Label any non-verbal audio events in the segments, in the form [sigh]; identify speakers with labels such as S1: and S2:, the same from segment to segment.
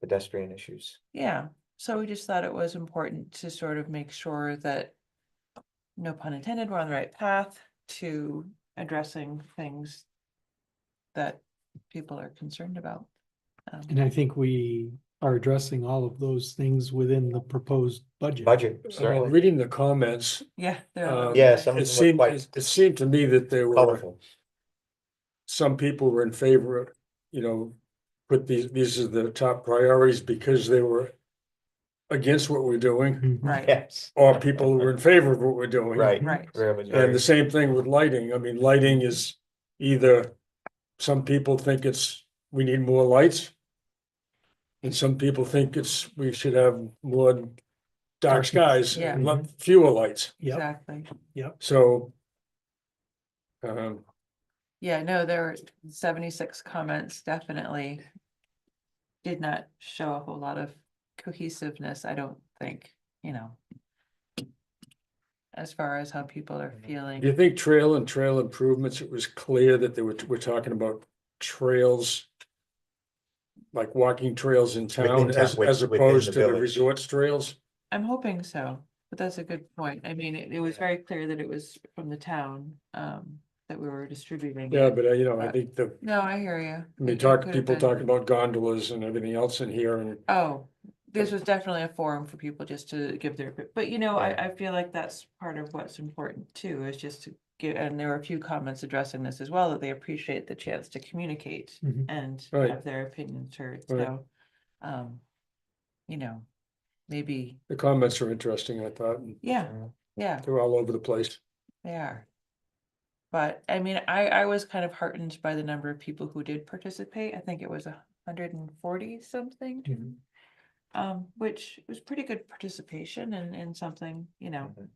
S1: pedestrian issues.
S2: Yeah, so we just thought it was important to sort of make sure that. No pun intended, we're on the right path to addressing things. That people are concerned about. Um,
S3: And I think we are addressing all of those things within the proposed budget.
S1: Budget,
S4: Uh,
S1: certainly.
S4: Reading the comments,
S2: Yeah. they're
S4: Uh,
S2: all-
S1: Yeah,
S4: [laughs]
S1: some of
S4: it
S1: them were
S4: seemed,
S1: quite
S4: it it seemed to me that there were,
S1: colorful. [laughs]
S4: some people were in favor, of, you know, put these, these are the top priorities because they were against what we're doing,
S3: Mhm.
S2: Right,
S1: Yes,
S4: or people who were in favor of what we're doing.
S1: right. [laughs]
S2: right,
S1: Rare majority.
S4: And the same thing with lighting. I mean, lighting is either, some people think it's, we need more lights. And some people think it's, we should have more dark skies,
S2: Yeah.
S4: and
S1: Mm-hmm.
S4: lot- fewer lights,
S3: Yep,
S2: exactly.
S4: so. Um,
S2: Yeah, no, there were seventy-six comments, definitely. Did not show a whole lot of cohesiveness, I don't think, you know. As far as how people are feeling.
S4: do you think trail and trail improvements, it was clear that they were, we're talking about trails? Like walking trails in town
S1: Within town,
S4: as,
S1: with-
S4: as
S1: within the
S4: opposed to the
S1: village.
S4: resorts trails?
S2: I'm hoping so, but that's a good point. I mean, it, it was very clear that it was from the town, um, that we were distributing.
S4: Yeah,
S2: it.
S4: but uh, you know, I
S2: Uh,
S4: think the,
S2: No, I hear you.
S4: I mean,
S2: It- it
S4: talk,
S2: could have
S4: people
S2: been-
S4: talk about gondolas and everything else in here and
S2: Oh, this was definitely a forum for people just to give their, opi- but you know, I, I feel like that's part of what's important too, is just to give, and there were a few comments addressing this as well, that they appreciate the chance to communicate
S3: Mhm.
S2: and
S4: Mm-hmm. Right.
S2: have their opinions heard,
S4: Right.
S2: so. Um, you know, maybe,
S4: The comments are interesting, I thought, and
S2: yeah,
S1: Mm.
S2: yeah.
S4: they're all over the place.
S2: They are. But I mean, I, I was kind of heartened by the number of people who did participate. I think it was a hundred and forty something.
S3: Mhm.
S2: Um, which was pretty good participation and, and something, you know,
S1: Mhm.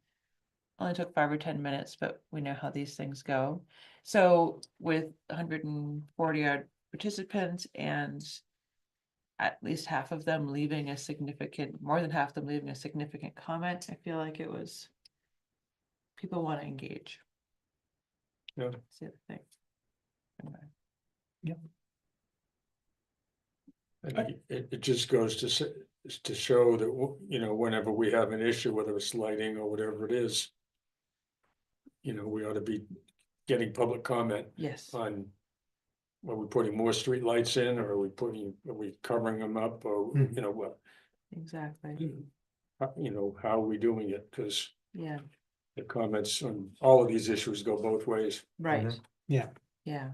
S2: only took five or ten minutes, but we know how these things go. So with hundred and forty odd participants and at least half of them leaving a significant, more than half of them leaving a significant comment, I feel like it was people want to engage.
S4: Yeah.
S2: That's the other thing. Okay.
S4: I think It, it just goes to, s- to show that, w- you know, whenever we have an issue, whether it's lighting or whatever it is, you know, we ought to be getting public comment
S2: Yes,
S4: on, are we putting more streetlights in, or are we putting, are we covering them up, or, you know, what?
S2: exactly.
S4: You know, how are we doing it? Because
S2: Yeah,
S4: the comments on all of these issues go both ways.
S2: right.
S3: Yeah.
S2: Yeah,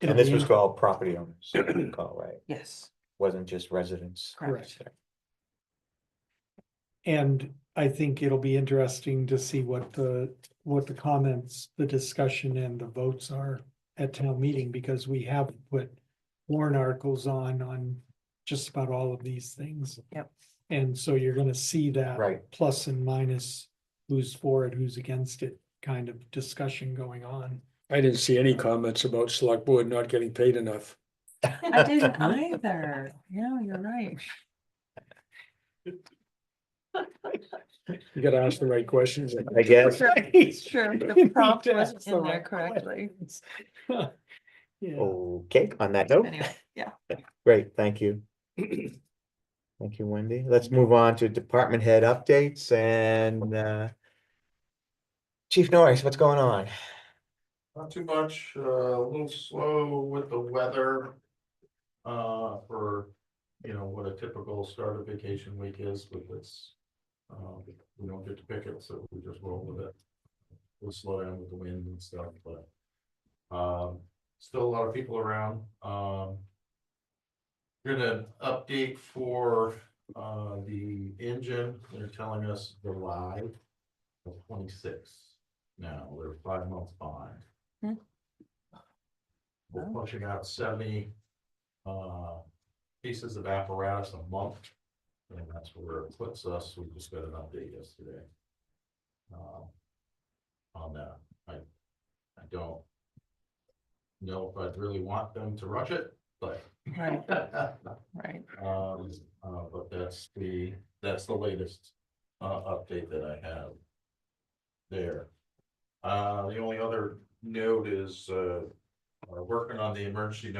S3: It'll
S1: And this
S3: be
S1: was
S3: in-
S1: for all property owners, if I recall, right?
S2: yes,
S1: Wasn't just residents.
S2: correct.
S3: And I think it'll be interesting to see what the, what the comments, the discussion and the votes are at town meeting, because we have put warrant articles on, on just about all of these things.
S2: Yep.
S3: And so you're gonna see that.
S1: Right.
S3: Plus and minus, who's for it, who's against it, kind of discussion going on.
S4: I didn't see any comments about select board not getting paid enough.
S2: I didn't either. No, you're right.
S4: You gotta ask the right questions.
S1: I guess.
S2: It's true. The prompt
S3: Yeah,
S2: wasn't
S3: so
S2: in there
S3: right.
S2: correctly.
S1: Oh,
S3: Yeah,
S1: Okay, on that note,
S2: Anyway, yeah.
S1: great, thank you. Thank you, Wendy. Let's move on to department head updates and uh. Chief Norris, what's going on?
S5: Not too much, uh, a little slow with the weather. Uh, for, you know, what a typical start of vacation week is with this. Um, we don't get to pick it, so we just roll with it. We'll slow down with the wind and stuff, but. Um, still a lot of people around, um. Gonna update for, uh, the engine, they're telling us July of twenty-six. Now, we're five months behind.
S2: Hmm.
S5: We're
S2: Oh.
S5: pushing out seventy, uh, pieces of apparatus a month. And that's where it puts us, we just got an update yesterday. Um, On that, I, I don't know if I'd really want them to rush it, but. [laughs]
S2: Right, right.
S5: Um, uh, but that's the, that's the latest, uh, update that I have. There. Uh, the only other note is, uh, we're working on the emergency